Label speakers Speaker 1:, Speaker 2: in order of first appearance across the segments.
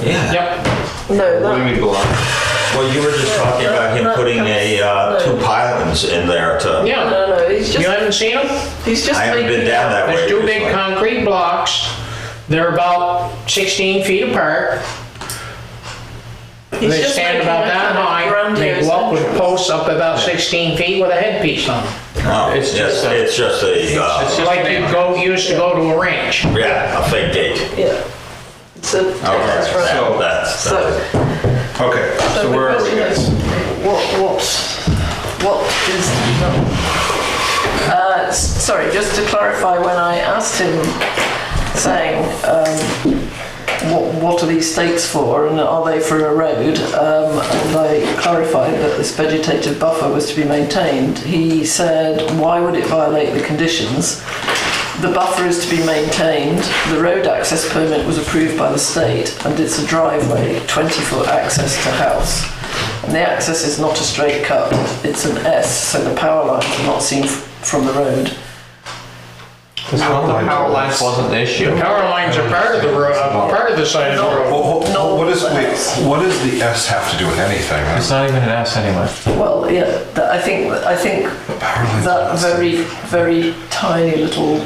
Speaker 1: Yeah.
Speaker 2: Yep.
Speaker 3: No,
Speaker 4: What do you
Speaker 3: that,
Speaker 4: mean block?
Speaker 1: Well, you were just talking about him
Speaker 3: That
Speaker 1: putting a uh, two
Speaker 3: comes-
Speaker 1: pylons in there to.
Speaker 3: no,
Speaker 2: Yeah.
Speaker 3: no, no, he's
Speaker 2: You
Speaker 3: just,
Speaker 2: haven't seen them?
Speaker 3: he's just
Speaker 1: I haven't
Speaker 3: making
Speaker 1: been down that way.
Speaker 2: There's two big
Speaker 1: recently.
Speaker 2: concrete blocks. They're about 16 feet apart.
Speaker 3: He's
Speaker 2: They
Speaker 3: just
Speaker 2: stand
Speaker 3: making
Speaker 2: about
Speaker 3: a
Speaker 2: that
Speaker 3: kind of
Speaker 2: high. They
Speaker 3: grandiose
Speaker 2: go up with
Speaker 3: entrance.
Speaker 2: posts up about 16 feet with a headpiece on them.
Speaker 1: Oh,
Speaker 5: It's
Speaker 1: it's
Speaker 5: just
Speaker 1: just,
Speaker 5: a-
Speaker 1: it's just a,
Speaker 5: it's
Speaker 1: uh,
Speaker 5: just-
Speaker 2: Like you go, used to go to a ranch.
Speaker 1: yeah, a fake gate.
Speaker 3: Yeah. It's a
Speaker 1: Okay,
Speaker 3: Texas
Speaker 1: that-
Speaker 3: road.
Speaker 1: that's,
Speaker 3: So,
Speaker 4: Okay,
Speaker 3: so
Speaker 4: so
Speaker 3: the
Speaker 4: where are we
Speaker 3: question
Speaker 4: guys?
Speaker 3: is, what, what, what is the, uh, s- sorry, just to clarify, when I asked him, saying, um, what, what are these stakes for and are they for a road? Um, and I clarified that this vegetative buffer was to be maintained. He said, why would it violate the conditions? The buffer is to be maintained. The road access permit was approved by the state and it's a driveway, 20-foot access to house. And the access is not a straight cut, it's an S, so the power lines are not seen f- from the road.
Speaker 5: The power lines wasn't the issue.
Speaker 2: Power lines are part of the road, part of the side of the road.
Speaker 4: Well, ho-
Speaker 3: No.
Speaker 4: ho- what is, wait, what does the S have to do with anything?
Speaker 5: It's not even an S anyway.
Speaker 3: Well, yeah, that, I think, I think that very, very tiny little,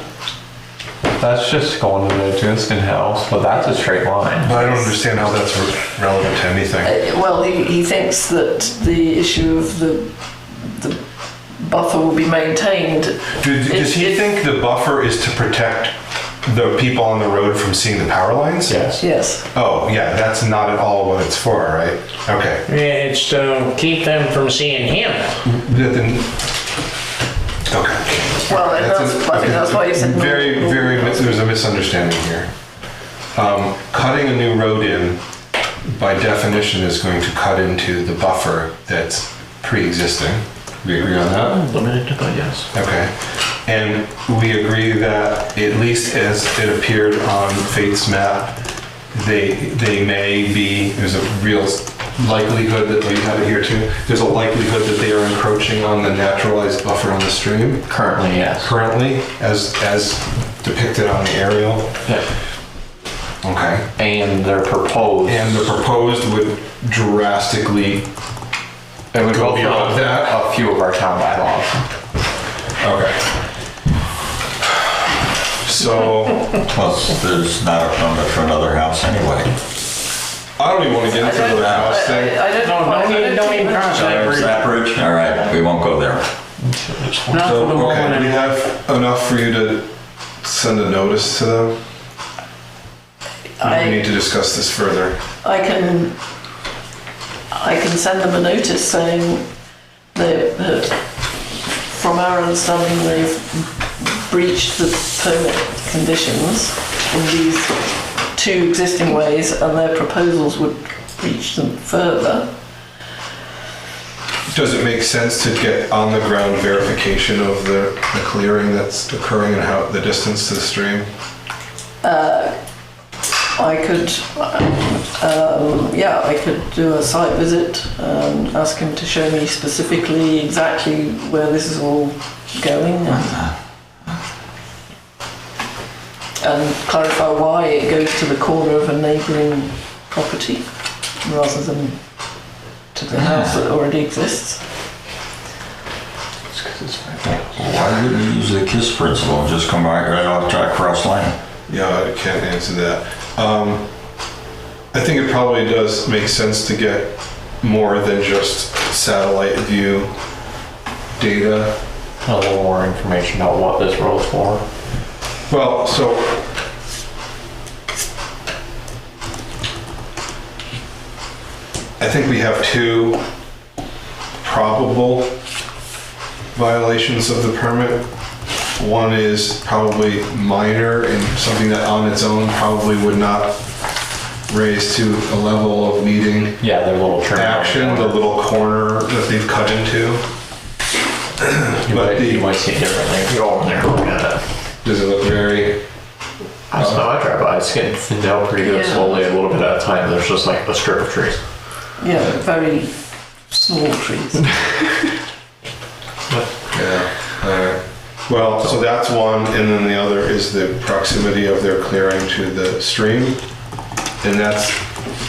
Speaker 5: That's just going to the Dunstan House, but that's a straight line.
Speaker 4: I don't understand how that's re- relevant to anything.
Speaker 3: eh, well, he, he thinks that the issue of the, the buffer will be maintained
Speaker 4: Do- Does he
Speaker 3: It's-
Speaker 4: think the buffer is to protect the people on the road from seeing the power lines?
Speaker 5: Yes.
Speaker 3: Yes,
Speaker 4: Oh, yeah, that's not at all what it's for, right? Okay.
Speaker 2: Yeah, It's to keep them from seeing him.
Speaker 4: Yeah, Then, okay.
Speaker 3: well, and that's, Oh, I think that's why you said. no-
Speaker 4: Very,
Speaker 3: no-
Speaker 4: very, there's a misunderstanding here. Um, Cutting a new road in, by definition, is going to cut into the buffer that's pre-existing. We agree on that?
Speaker 5: Limited to the yes.
Speaker 4: Okay. And we agree that, at least as it appeared on Fate's map, they, they may be, there's a real likelihood that, we have it here too, there's a likelihood that they are encroaching on the naturalized buffer on the stream
Speaker 5: Currently, yes.
Speaker 4: currently as as depicted on the aerial.
Speaker 5: Yeah.
Speaker 4: Okay.
Speaker 5: And they're proposed.
Speaker 4: And the proposed would drastically.
Speaker 5: It would
Speaker 4: Go
Speaker 5: go
Speaker 4: beyond
Speaker 5: through
Speaker 4: that.
Speaker 5: a few of our town bylaws.
Speaker 4: Okay. So
Speaker 1: plus there's not a permit for another house anyway.
Speaker 4: I don't even want to get
Speaker 3: I
Speaker 4: into
Speaker 3: don't,
Speaker 4: the
Speaker 3: I,
Speaker 4: house
Speaker 3: I-
Speaker 4: thing.
Speaker 3: I don't.
Speaker 2: No,
Speaker 3: I
Speaker 2: no, you don't even cross that
Speaker 1: Is
Speaker 2: bridge.
Speaker 1: that bridge? All right, we won't go there.
Speaker 2: Not for
Speaker 4: So
Speaker 2: the moment
Speaker 4: okay, we
Speaker 2: anyway.
Speaker 4: have enough for you to send a notice to them. We
Speaker 3: I,
Speaker 4: need to discuss this further.
Speaker 3: I can, I can send them a notice saying that, uh, from our understanding, they've breached the permit conditions in these two existing ways, and their proposals would breach them further.
Speaker 4: Does it make sense to get on the ground verification of the, the clearing that's occurring and how the distance to the stream?
Speaker 3: I could, um, yeah, I could do a site visit and ask him to show me specifically exactly where this is all going and, and clarify why it goes to the corner of a neighbouring property rather than to the house that already exists.
Speaker 5: It's 'cause it's right
Speaker 1: Why wouldn't you use the KISS principle and just come right, right off track cross lane?
Speaker 4: Yeah, I can't answer that. Um, I think it probably does make sense to get more than just satellite view data.
Speaker 5: there. A little more information about what this road's for.
Speaker 4: Well, so. I think we have two probable violations of the permit. One is probably minor and something that on its own probably would not raise to a level of needing
Speaker 5: Yeah, their little turn.
Speaker 4: action, the little corner that they've cut into.
Speaker 5: You
Speaker 4: But
Speaker 5: might, you
Speaker 4: the,
Speaker 5: might see it differently if you go over there and look at it.
Speaker 4: does it look very,
Speaker 5: I just know I drive by, it's getting thinned out pretty good
Speaker 3: Yeah.
Speaker 5: slowly, a little bit at a time. There's just like a strip of trees.
Speaker 3: Yeah, very small trees.
Speaker 4: yeah, alright. Well, so that's one, and then the other is the proximity of their clearing to the stream. And that's